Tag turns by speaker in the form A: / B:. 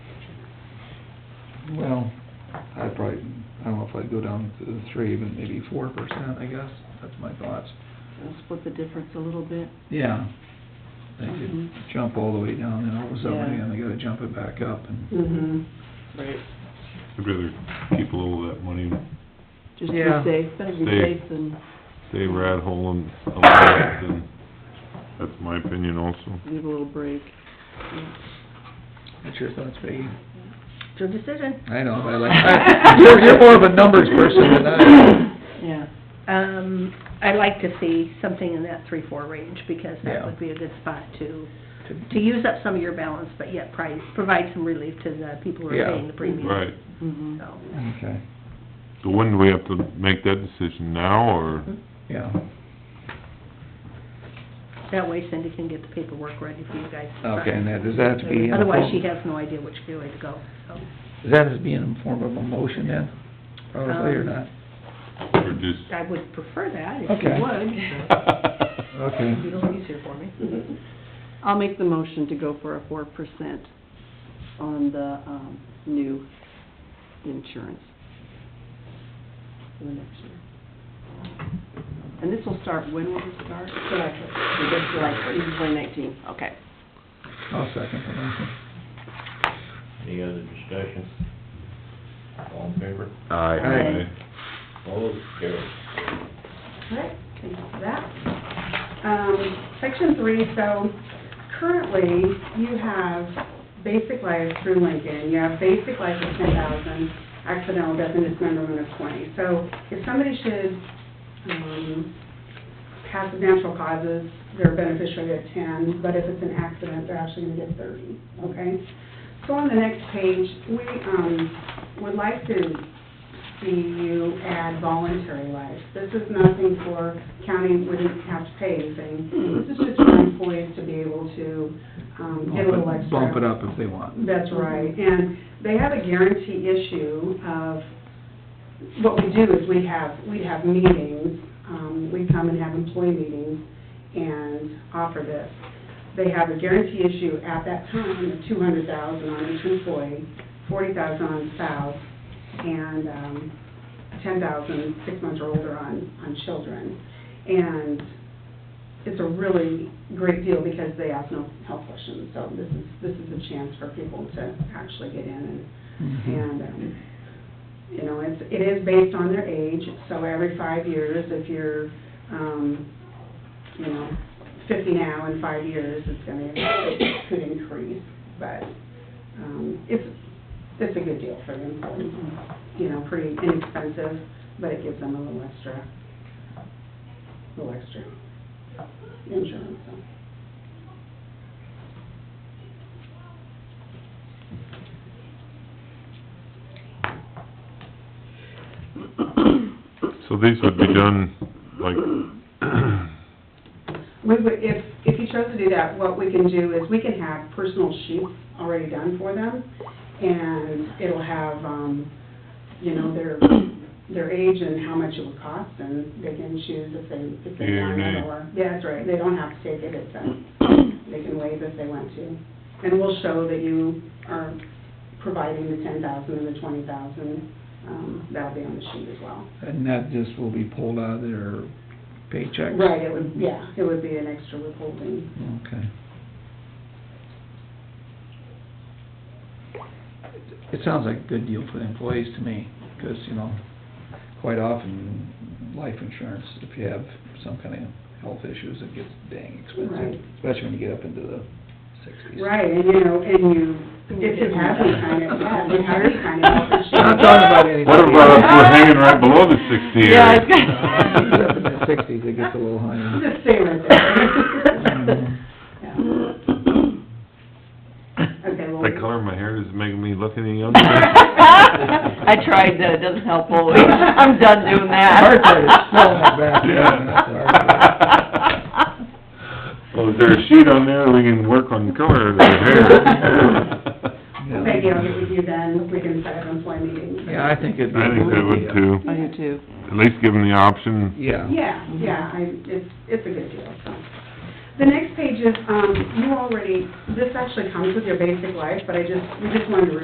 A: Well, I'd probably, I don't know if I'd go down to the three, but maybe four percent, I guess, that's my thoughts.
B: We'll split the difference a little bit.
A: Yeah, they could
B: Mhm.
C: Mm-hmm.
A: jump all the way down, and all of a sudden,
B: Yeah.
A: man, they gotta jump it back up, and,
B: Mm-hmm. Right.
D: I'd rather keep a little of that money and
B: Just
A: Yeah.
B: be safe, better be
D: Stay-
B: safe than,
D: stay rat hole and alive, and that's my opinion also.
B: leave a little break.
A: what's your thoughts, Peggy?
C: It's your decision.
A: I know, but I like, I- you're, you're more of a numbers person than I am.
B: Yeah.
C: Um, I'd like to see something in that three, four range, because
A: Yeah.
C: that would be a good spot to, to use up some of your balance, but yet pri provide some relief to the people who
A: Yeah.
C: are paying the premium.
D: Right,
B: Mm-hmm.
C: So,
A: Okay,
D: so when do we have to make that decision, now, or?
A: yeah,
C: that way Cindy can get the paperwork ready for you guys to sign.
A: okay, and that, does that have to be in the
C: Otherwise, she
A: form,
C: has no idea which way to go, so.
A: does that have to be in the form of a motion then, probably, or
C: Um,
A: not?
D: Or just...
C: I would prefer that, if
A: Okay.
C: you would. Mm-hmm. but
A: Okay.
C: It'd be a little easier for me.
B: I'll make the motion to go for a four percent on the, um, new insurance for the next year. And this will start, when will this start? This is like, this is twenty nineteen, okay.
A: I'll second the motion.
E: Any other discussion? All in favor?
A: Aye.
E: Opposed? Carried.
C: Alright, thank you for that. Um, section three, so currently you have basic life through Lincoln, you have basic life at ten thousand, accidental death and dismemberment of twenty. So if somebody should, um, pass of natural causes, they're a beneficiary at ten, but if it's an accident, they're actually gonna get thirty, okay? So on the next page, we, um, would like to see you add voluntary life. This is nothing for county wouldn't have to pay anything. This is just for employees to be able to, um, get a little
A: Bump it-
C: extra.
A: Bump it up if they want.
C: That's right, and they have a guarantee issue of, what we do is we have, we have meetings, um, we come and have employee meetings and offer this. They have a guarantee issue at that time of two hundred thousand on each employee, forty thousand on spouse, and, um, ten thousand six months or older on, on children. And it's a really great deal because they ask no health questions, so this is, this is a chance for people to actually get in
A: Mm-hmm.
C: and, and, um, you know, it's, it is based on their age, so every five years, if you're, um, you know, fifty now in five years, it's gonna, it could increase, but, um, it's, it's a good deal for them, you know, pretty inexpensive, but it gives them a little extra, little extra insurance, so.
D: So these would be done, like,
C: We would, if, if you chose to do that, what we can do is we can have personal sheets already done for them, and it'll have, um, you know, their, their age and how much it would cost, and they can choose if they, if they
D: Yeah,
C: want
D: right.
C: it, or, yeah, that's right, they don't have to take it, it's, um, they can waive if they want to. And we'll show that you are providing the ten thousand and the twenty thousand, um, that'll be on the sheet as well.
A: And that just will be pulled out of their paychecks?
C: Right, it would, yeah, it would be an extra withholding.
A: Okay. It sounds like a good deal for the employees to me, because, you know, quite often, life insurance, if you have some kind of health issues, it gets dang
C: Right.
A: expensive, especially when you get up into the sixties.
C: Right, and you know, and you, if you have any kind of, yeah, if you have any kind of health
A: I'm not
C: issue.
A: talking about anything.
D: what about if we're hanging right below the sixty area?
B: Yeah, I
A: When
B: was
A: you get up in the sixties, it gets a little Mm-hmm. higher.
C: Just stay right there. Yeah. Okay, well,
D: I color my hair, does it make me look any younger?
B: I tried that, it doesn't help always. I'm done doing that.
A: Hard part is smelling it back.
D: Yeah. Well, Oh, is there a sheet on there we can work on color of the hair?
A: Yeah.
C: Peggy, I'll get with you then, we can set up an employee meeting.
A: Yeah, I think it'd be.
D: I think that would too.
B: I do too.
D: At least give them the option.
A: Yeah.
C: Yeah, yeah, I, it's, it's a good deal, so. The next page is, um, you already, this actually comes with your basic life, but I just, we just wanted to